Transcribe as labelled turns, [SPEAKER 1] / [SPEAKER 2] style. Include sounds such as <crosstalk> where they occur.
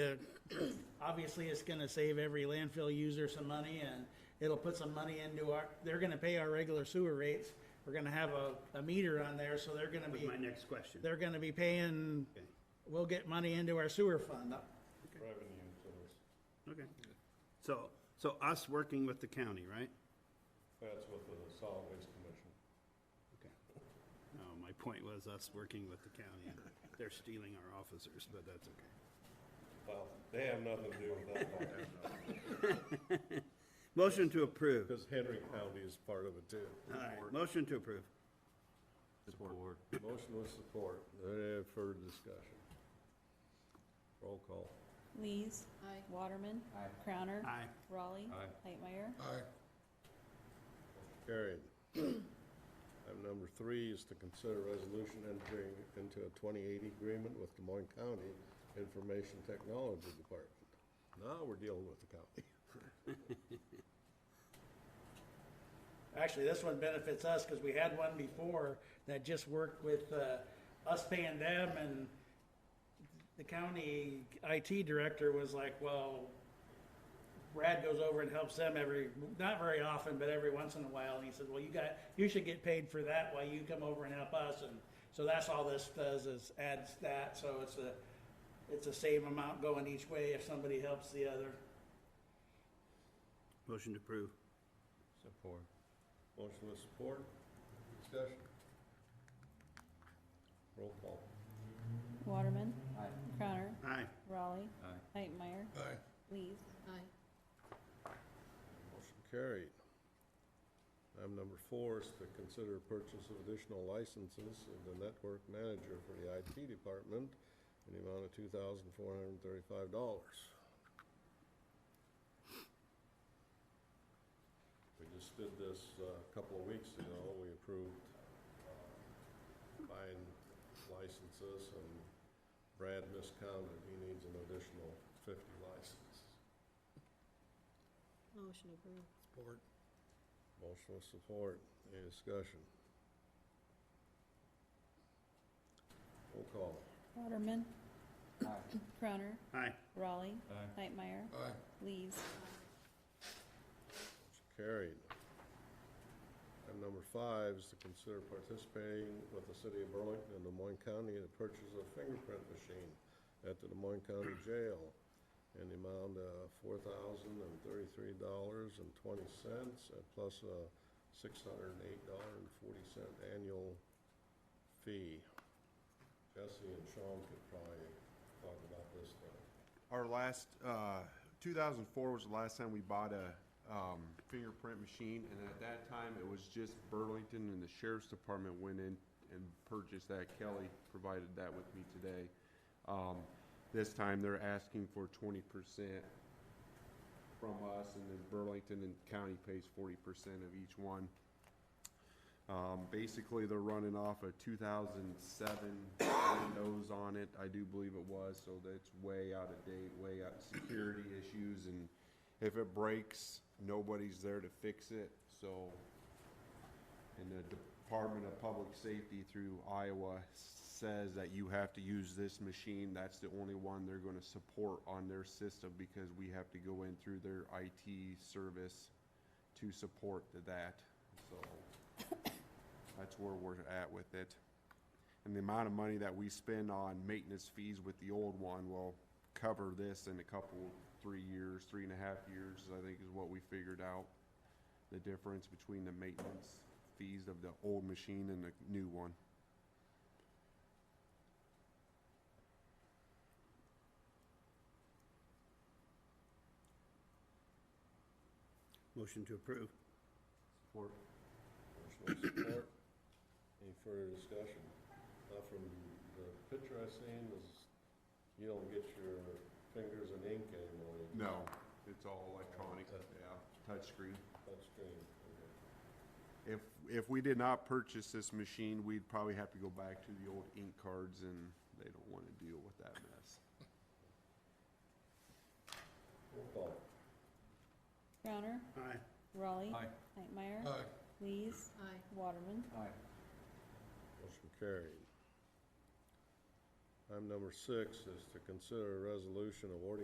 [SPEAKER 1] Uh, Obviously, it's gonna save every landfill user some money and it'll put some money into our, they're gonna pay our regular sewer rates. We're gonna have a, a meter on there, so they're gonna
[SPEAKER 2] was
[SPEAKER 1] be,
[SPEAKER 2] my next question.
[SPEAKER 1] they're gonna be paying,
[SPEAKER 2] Okay,
[SPEAKER 1] we'll get money into our sewer fund.
[SPEAKER 3] revenue source.
[SPEAKER 2] okay. So, so us working with the county, right?
[SPEAKER 3] That's with the solid waste commission.
[SPEAKER 2] Okay. No, my point was us working with the county. They're stealing our officers, but that's okay.
[SPEAKER 3] Well, they have nothing to do with that.
[SPEAKER 2] Motion to approve.
[SPEAKER 3] <laughs> Because Henry County is part of it too.
[SPEAKER 2] All right, motion to approve.
[SPEAKER 3] Support. Motion with support. Any further discussion? Roll call.
[SPEAKER 4] Lees. Waterman. Crowner.
[SPEAKER 2] Aye.
[SPEAKER 4] Raleigh.
[SPEAKER 3] Aye.
[SPEAKER 4] Lightmeyer.
[SPEAKER 3] Carried. <clears throat> Item number three is to consider resolution entering into a 2080 agreement with Des Moines County Information Technology Department. Now we're dealing with the county.
[SPEAKER 1] Actually, this one benefits us because we had one before that just worked with uh, us paying them and the county IT director was like, well, Brad goes over and helps them every, not very often, but every once in a while. And he said, well, you got, you should get paid for that while you come over and help us. And so that's all this does is adds that. So it's a, it's the same amount going each way if somebody helps the other.
[SPEAKER 2] Motion to approve.
[SPEAKER 3] Support. Motion with support. Discussion. Roll call.
[SPEAKER 4] Waterman. Crowner.
[SPEAKER 2] Aye.
[SPEAKER 4] Raleigh. Lightmeyer. Lees.
[SPEAKER 3] Motion carried. Item number four is to consider purchase of additional licenses of the network manager for the IT department in the amount of two thousand four hundred and thirty-five dollars. We just did this uh, a couple of weeks ago. We approved uh, buying licenses and Brad miscounted. He needs an additional fifty licenses.
[SPEAKER 5] Motion approved.
[SPEAKER 3] Motion with support, any discussion? Roll call.
[SPEAKER 4] Waterman. Crowner.
[SPEAKER 2] Aye.
[SPEAKER 4] Raleigh. Lightmeyer. Lees.
[SPEAKER 3] Motion Carried. Item number five is to consider participating with the city of Burlington and Des Moines County in the purchase of fingerprint machine at the Des Moines County Jail in the amount of four thousand and thirty-three dollars and twenty cents, plus a six hundred and eight dollar and forty cent annual fee. Jesse and Sean could probably talk about this now.
[SPEAKER 6] Our last, uh, 2004 was the last time we bought a um, fingerprint machine, and at that time, it was just Burlington and the sheriff's department went in and purchased that. Kelly provided that with me today. Um, This time, they're asking for 20% from us, and then Burlington and county pays 40% of each one. Um, basically, they're running off a two thousand seven Windows on it, I do believe it was, so that's way out of date, way out, security issues, and if it breaks, nobody's there to fix it, so. And the Department of Public Safety through Iowa says that you have to use this machine, that's the only one they're gonna support on their system, because we have to go in through their IT service to support that, so. That's where we're at with it. And the amount of money that we spend on maintenance fees with the old one will cover this in a couple, three years, three and a half years, I think is what we figured out. The difference between the maintenance fees of the old machine and the new one.
[SPEAKER 2] Motion to approve.
[SPEAKER 3] Motion with support. Any further discussion? Now, from the picture I seen is, you don't get your fingers and ink anymore. you
[SPEAKER 6] No, it's all electronic, yeah, touchscreen.
[SPEAKER 3] Touchscreen. Okay.
[SPEAKER 6] If, if we did not purchase this machine, we'd probably have to go back to the old ink cards and they don't wanna deal with that mess.
[SPEAKER 3] Roll call.
[SPEAKER 4] Crowner.
[SPEAKER 2] Aye.
[SPEAKER 4] Raleigh. Lightmeyer. Lees.
[SPEAKER 5] Aye.
[SPEAKER 4] Waterman.
[SPEAKER 3] Motion carried. Item number six is to consider a resolution awarding